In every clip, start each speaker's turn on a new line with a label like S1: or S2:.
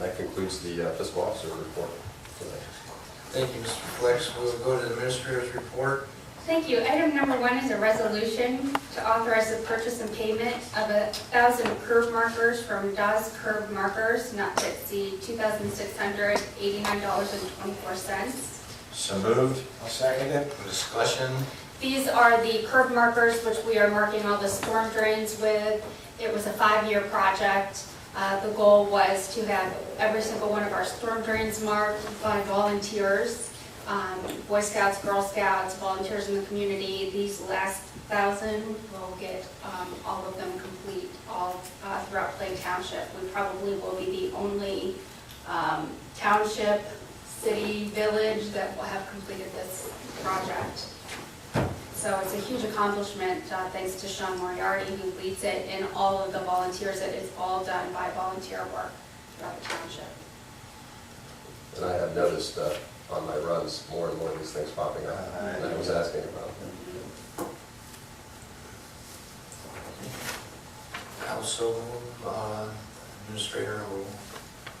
S1: that concludes the uh, fiscal officer report tonight.
S2: Thank you, Mr. Flex. We'll go to the administrator's report.
S3: Thank you. Item number one is a resolution to authorize the purchase and payment of a thousand curb markers from Dawes Curb Markers, not to exceed $2,689.24.
S1: So moved.
S2: I'll second it. Discussion.
S3: These are the curb markers which we are marking all the storm drains with. It was a five-year project. Uh, The goal was to have every single one of our storm drains marked by volunteers, um, Boy Scouts, Girl Scouts, volunteers in the community. These last thousand will get um, all of them complete all uh, throughout Plain Township. We probably will be the only um, township, city, village that will have completed this project. So it's a huge accomplishment, uh, thanks to Sean Moriarty, who leads it, and all of the volunteers. It is all done by volunteer work throughout the township.
S1: And I have noticed uh, on my runs, more and more of these things popping up that I was asking about.
S2: Also, uh, administrator will.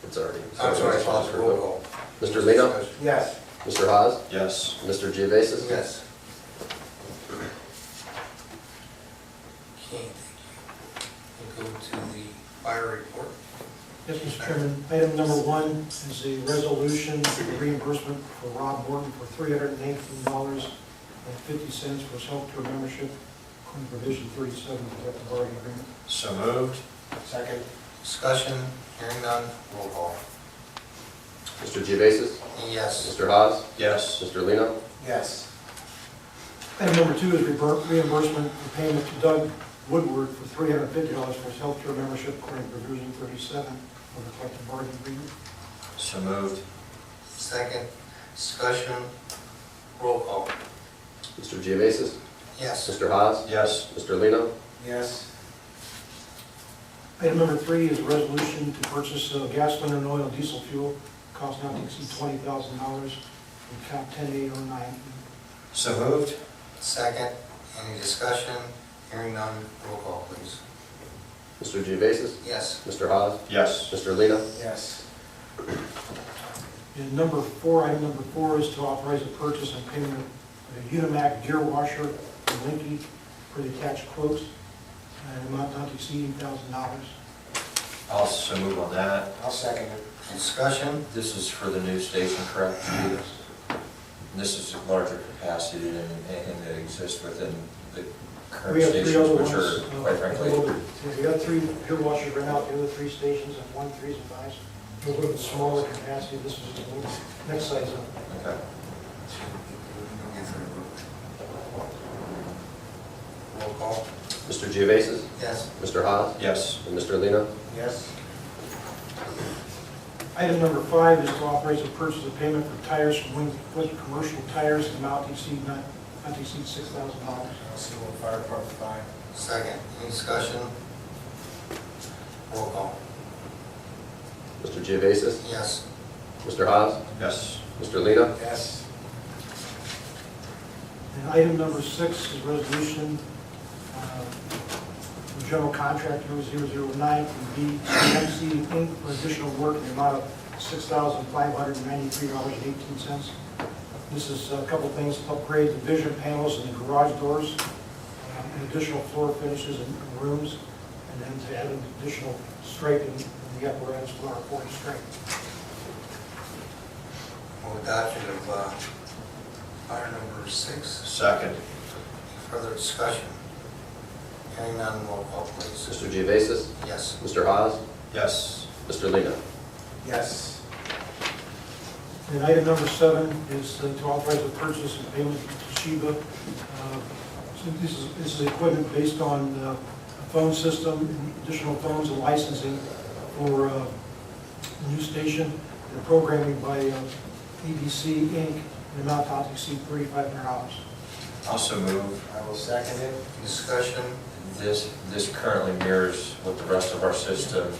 S1: It's already.
S2: I'm sorry, Foster, roll call.
S1: Mr. Lino?
S2: Discussion.
S4: Yes.
S1: Mr. Haas?
S5: Yes.
S1: Mr. Geovasis?
S2: Yes. Okay, thank you. We'll go to the fire report.
S4: Yes, Mr. Chairman, item number one is a resolution for the reimbursement for Rob Morton for three hundred and eighteen dollars and fifty cents for self-care membership, according to provision thirty-seven of the collective bargaining agreement.
S5: So moved?
S4: Second.
S2: Discussion, hearing none, roll call.
S1: Mr. Geovasis?
S2: Yes.
S1: Mr. Haas?
S5: Yes.
S1: Mr. Lino?
S4: Yes. Item number two is rebur- reimbursement for payment to Doug Woodward for three hundred and fifty dollars for his healthcare membership, according to provision thirty-seven of the collective bargaining agreement.
S5: So moved?
S2: Second, discussion, roll call.
S1: Mr. Geovasis?
S2: Yes.
S1: Mr. Haas?
S5: Yes.
S1: Mr. Lino?
S4: Yes. Item number three is a resolution to purchase uh, gasoline and oil diesel fuel, cost not to exceed twenty thousand dollars, from cap ten eight oh nine.
S5: So moved?
S2: Second, any discussion, hearing none, roll call, please.
S1: Mr. Geovasis?
S2: Yes.
S1: Mr. Haas?
S5: Yes.
S1: Mr. Lino?
S4: Yes. And number four, item number four is to authorize the purchase and payment of a Unimac gear washer and Linky for the attached quotes, and amount not to exceed eight thousand dollars.
S5: I'll so move on that.
S2: I'll second it. Discussion,
S5: This is for the new station, correct? This is a larger capacity than anything that exists within the
S4: We
S5: current
S4: have three other
S5: stations,
S4: ones.
S5: which are,
S4: uh,
S5: quite
S4: a little
S5: frankly,
S4: bit- We got three pier washers right now, the other three stations and one threes and fives. A little bit smaller capacity, this is the little- next size up.
S5: okay.
S2: roll call.
S1: Mr. Geovasis?
S2: Yes.
S1: Mr. Haas?
S5: Yes.
S1: And Mr. Lino?
S2: Yes.
S4: Item number five is to authorize the purchase of payment for tires from Win- Winter Commercial Tires, in the amount to exceed not, not to exceed six thousand dollars.
S2: fire department five. Second, any discussion? Roll call.
S1: Mr. Geovasis?
S2: Yes.
S1: Mr. Haas?
S5: Yes.
S1: Mr. Lino?
S2: Yes.
S4: And item number six is resolution, uh, for general contractor 009 from BMC Inc. for additional work in the amount of $6,593.18. This is a couple things, to upgrade the vision panels and the garage doors, um, and additional floor finishes and rooms, and then to add an additional striping in the apparatus for our fourth stripe.
S2: Move adoption of uh, item number six.
S5: Second?
S2: Any Further discussion? Hearing none, roll call, please.
S1: Mr. Geovasis?
S2: Yes.
S1: Mr. Haas?
S5: Yes.
S1: Mr. Lino?
S4: Yes. And item number seven is uh, to authorize the purchase and payment to Toshiba. Uh, So this is, this is equipment based on uh, a phone system, and additional phones and licensing for uh, the new station and programming by uh, ABC Inc. in an amount not to exceed thirty-five hundred dollars.
S5: I'll so move.
S2: I will second it. Discussion?
S5: This, this currently mirrors what the rest of our system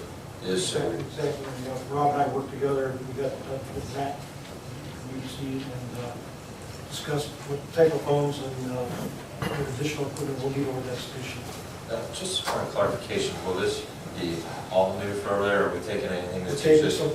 S5: is, so we
S4: Exactly, and, uh, Rob and I worked together, and we got uh, in touch with Matt, from UC, E and uh, discussed what type of phones and uh, what additional equipment we'll need over that station.
S5: Uh, Just for clarification, will this be all new for over there, or are we taking anything
S4: We're
S5: that's
S4: taking
S5: existing?